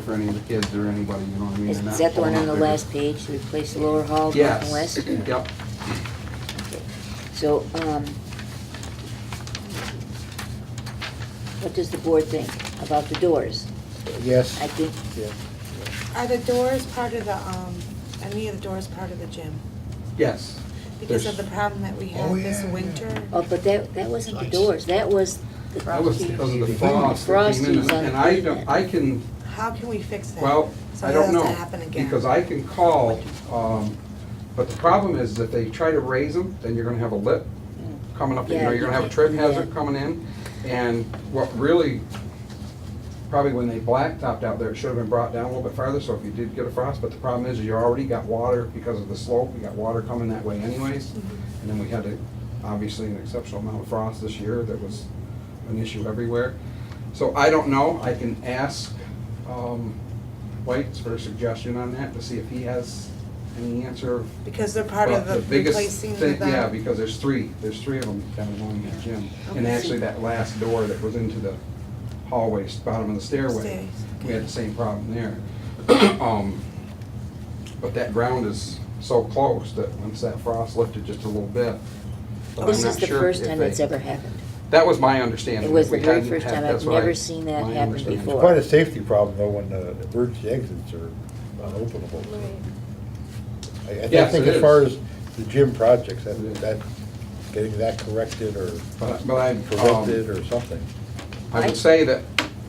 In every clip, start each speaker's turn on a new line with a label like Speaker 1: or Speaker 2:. Speaker 1: for any of the kids or anybody, you know what I mean?
Speaker 2: Is
Speaker 1: They're not
Speaker 2: that the one on
Speaker 1: pulling
Speaker 2: the
Speaker 1: up their-
Speaker 2: last page, replace the lower hall, north and
Speaker 1: Yes,
Speaker 2: west?
Speaker 1: yep,
Speaker 2: So, um, what does the board think about the doors?
Speaker 3: Yes.
Speaker 2: I think,
Speaker 3: Yeah.
Speaker 4: Are the doors part of the, um, any of the doors part of the gym?
Speaker 1: yes.
Speaker 4: Because of
Speaker 1: There's-
Speaker 4: the problem that we had
Speaker 3: Oh,
Speaker 4: this
Speaker 3: yeah, yeah.
Speaker 4: winter?
Speaker 2: oh, but that, that wasn't the doors, that was the.
Speaker 1: That was because of the
Speaker 2: the
Speaker 1: frost that came in,
Speaker 2: Frosties on
Speaker 1: and
Speaker 2: the
Speaker 1: I,
Speaker 2: pavement.
Speaker 1: don't- I can,
Speaker 4: How can we fix that?
Speaker 1: well,
Speaker 4: So
Speaker 1: I
Speaker 4: it
Speaker 1: don't
Speaker 4: doesn't
Speaker 1: know.
Speaker 4: happen again.
Speaker 1: Because I can call, um, but the problem is that they try to raise them, then you're gonna have a lip coming up, you
Speaker 2: Yeah,
Speaker 1: know,
Speaker 2: you
Speaker 1: you're gonna have a
Speaker 2: can't
Speaker 1: trip
Speaker 2: do
Speaker 1: hazard
Speaker 2: that.
Speaker 1: coming in. And what really, probably when they blacktopped out there, it should have been brought down a little bit farther, so if you did get a frost, but the problem is, you already got water because of the slope, you got water coming that way anyways.
Speaker 2: Mm-hmm.
Speaker 1: And then we had a, obviously, an exceptional amount of frost this year that was an issue everywhere. So I don't know, I can ask um, White's for a suggestion on that, to see if he has any answer of
Speaker 4: Because they're part of
Speaker 1: well,
Speaker 4: the
Speaker 1: biggest
Speaker 4: replacing the.
Speaker 1: thing- Yeah, because there's three, there's three of them down along the gym. And
Speaker 4: Okay.
Speaker 1: actually, that last door that was into the hallway, bottom of the stairway,
Speaker 4: Stairs,
Speaker 1: we had the same problem there. Um, But that ground is so close that once that frost lifted just a little bit. but I'm
Speaker 2: This
Speaker 1: not
Speaker 2: is the
Speaker 1: sure
Speaker 2: first
Speaker 1: if
Speaker 2: time
Speaker 1: they-
Speaker 2: it's ever happened.
Speaker 1: That was my understanding.
Speaker 2: It was
Speaker 1: We
Speaker 2: the very
Speaker 1: hadn't
Speaker 2: first
Speaker 1: had-
Speaker 2: time. I've
Speaker 1: that's what I-
Speaker 2: never seen that
Speaker 1: my
Speaker 2: happen
Speaker 1: understanding.
Speaker 2: before.
Speaker 3: Quite a safety problem though, when the emergency exits are unopenable. I- I think- I
Speaker 1: Yes,
Speaker 3: think
Speaker 1: it
Speaker 3: as far
Speaker 1: is.
Speaker 3: as the gym projects, that,
Speaker 1: It is.
Speaker 3: that, getting that corrected or
Speaker 1: But- but I, um,
Speaker 3: prevented or something.
Speaker 1: I would say that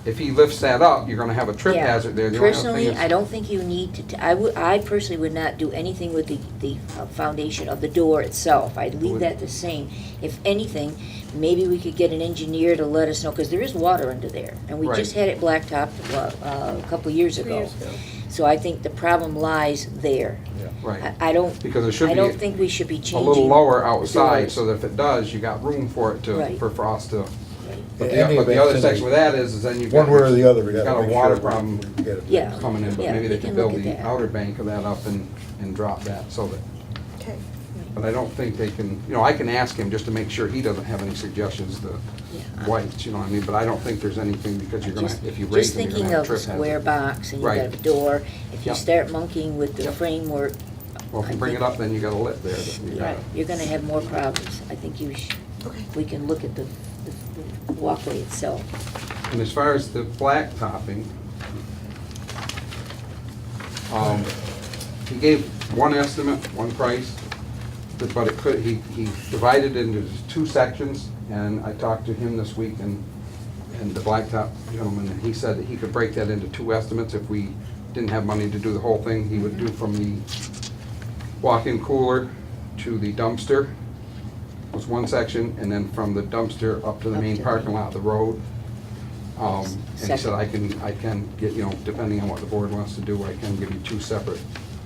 Speaker 1: if he lifts that up, you're gonna have a trip
Speaker 2: Yeah.
Speaker 1: hazard there. The only other thing
Speaker 2: Personally,
Speaker 1: is-
Speaker 2: I don't think you need to, t- I would, I personally would not do anything with the, the uh, foundation of the door itself. I'd leave
Speaker 1: Would-
Speaker 2: that the same. If anything, maybe we could get an engineer to let us know, because there is water under there. And we just
Speaker 1: Right.
Speaker 2: had it blacktopped, uh, uh, a couple years ago. So I think the problem lies there.
Speaker 3: Yeah.
Speaker 1: Right.
Speaker 2: I, I don't,
Speaker 1: Because it should
Speaker 2: I
Speaker 1: be.
Speaker 2: don't think we should be
Speaker 1: a
Speaker 2: changing.
Speaker 1: little lower
Speaker 2: the
Speaker 1: outside,
Speaker 2: doors.
Speaker 1: so that if it does, you got room for it to,
Speaker 2: Right.
Speaker 1: for frost to.
Speaker 2: Right.
Speaker 1: But
Speaker 3: In
Speaker 1: the,
Speaker 3: any
Speaker 1: but the
Speaker 3: event,
Speaker 1: other
Speaker 3: it's in
Speaker 1: section
Speaker 3: the-
Speaker 1: with that is, is then you've got.
Speaker 3: One way or the other, we
Speaker 1: you've got
Speaker 3: gotta
Speaker 1: a
Speaker 3: make
Speaker 1: water
Speaker 3: sure we-
Speaker 1: problem
Speaker 3: we get it.
Speaker 2: Yeah.
Speaker 1: coming in, but
Speaker 2: Yeah,
Speaker 1: maybe
Speaker 2: we
Speaker 1: they could
Speaker 2: can
Speaker 1: build
Speaker 2: look
Speaker 1: the
Speaker 2: at that.
Speaker 1: outer bank of that up and, and drop that, so that,
Speaker 4: Okay.
Speaker 1: but I don't think they can, you know, I can ask him just to make sure he doesn't have any suggestions, the
Speaker 2: Yeah.
Speaker 1: whites, you know what I mean, but I don't think there's anything, because you're gonna,
Speaker 2: Just-
Speaker 1: if you raise
Speaker 2: Just
Speaker 1: them, you're gonna have
Speaker 2: thinking
Speaker 1: a
Speaker 2: of a
Speaker 1: trip
Speaker 2: square
Speaker 1: hazard.
Speaker 2: box and you
Speaker 1: Right.
Speaker 2: got a door, if you
Speaker 1: Yep.
Speaker 2: start monkeying with the
Speaker 1: Yep.
Speaker 2: framework.
Speaker 1: Well, if
Speaker 2: I
Speaker 1: you bring it
Speaker 2: think-
Speaker 1: up, then you got a lip there that you
Speaker 2: Right,
Speaker 1: gotta.
Speaker 2: you're gonna have more problems. I think you should,
Speaker 4: Okay.
Speaker 2: we can look at the the- the walkway itself.
Speaker 1: And as far as the black topping, um, he gave one estimate, one price, but- but it could, he, he divided it into two sections, and I talked to him this week, and, and the blacktop gentleman, and he said that he could break that into two estimates if we didn't have money to do the whole thing, he would do from the walk-in cooler to the dumpster was one section, and then from the dumpster up to the
Speaker 2: Up
Speaker 1: main
Speaker 2: to-
Speaker 1: parking lot, the road. Um, And he said,
Speaker 2: Second.
Speaker 1: I can, I can get, you know, depending on what the board wants to do, I can give you two separate.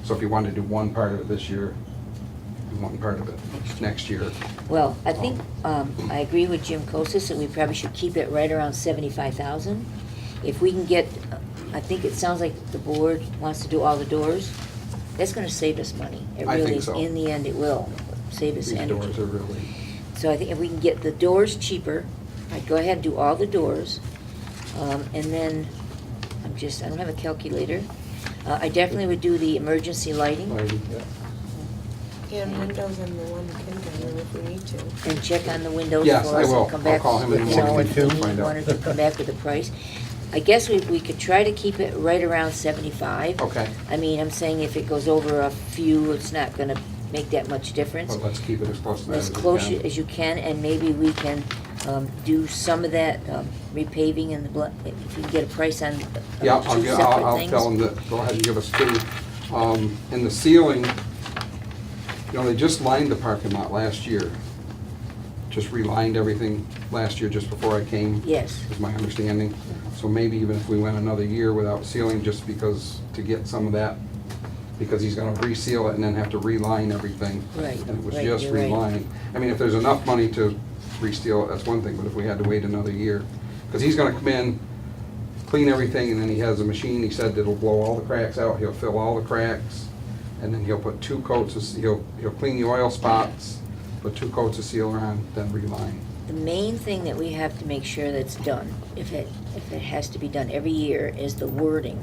Speaker 1: So if you wanted to do one part of it this year, and one part of it next year.
Speaker 2: Well, I think, um, I agree with Jim Kosis that we probably should keep it right around seventy-five thousand. If we can get, uh, I think it sounds like the board wants to do all the doors, that's gonna save us money. It
Speaker 1: I think
Speaker 2: really,
Speaker 1: so.
Speaker 2: In the end, it will save us
Speaker 1: These
Speaker 2: energy.
Speaker 1: doors are really,
Speaker 2: So I think if we can get the doors cheaper, I'd go ahead and do all the doors. Um, and then, I'm just, I don't have a calculator. Uh, I definitely would do the emergency lighting
Speaker 1: like,
Speaker 4: And windows in the one kindergarten if we need to.
Speaker 2: and check on the windows for
Speaker 1: Yes, I
Speaker 2: us
Speaker 1: will.
Speaker 2: and come back.
Speaker 1: I'll call him in
Speaker 3: the
Speaker 2: you know,
Speaker 3: morning
Speaker 2: if
Speaker 3: too,
Speaker 2: he
Speaker 1: find out.
Speaker 2: wanted to come back with a price. I guess we, we could try to keep it right around seventy-five.
Speaker 1: Okay.
Speaker 2: I mean, I'm saying if it goes over a few, it's not gonna make that much difference.
Speaker 1: but let's keep it as close to that as
Speaker 2: as
Speaker 1: we
Speaker 2: close
Speaker 1: can.
Speaker 2: as you can, and maybe we can um, do some of that um, repaving and the, bla- if you can get a price on uh,
Speaker 1: Yeah, I'll,
Speaker 2: two
Speaker 1: get- I'll,
Speaker 2: separate
Speaker 1: I'll tell them
Speaker 2: things.
Speaker 1: that, go ahead and give us two. Um, and the ceiling, you know, they just lined the parking lot last year. Just relined everything last year, just before I came.
Speaker 2: Yes,
Speaker 1: is my understanding. So maybe even if we went another year without sealing, just because, to get some of that, because he's gonna reseal it and then have to reline everything.
Speaker 2: Right,
Speaker 1: And it was
Speaker 2: right,
Speaker 1: just
Speaker 2: you're right.
Speaker 1: relining. I mean, if there's enough money to reseal, it, that's one thing, but if we had to wait another year, because he's gonna come in, clean everything, and then he has a machine, he said that'll blow all the cracks out, he'll fill all the cracks, and then he'll put two coats of, he'll, he'll clean the oil spots, put two coats of sealer on, then reline.
Speaker 2: the main thing that we have to make sure that's done, if it, if it has to be done every year, is the wording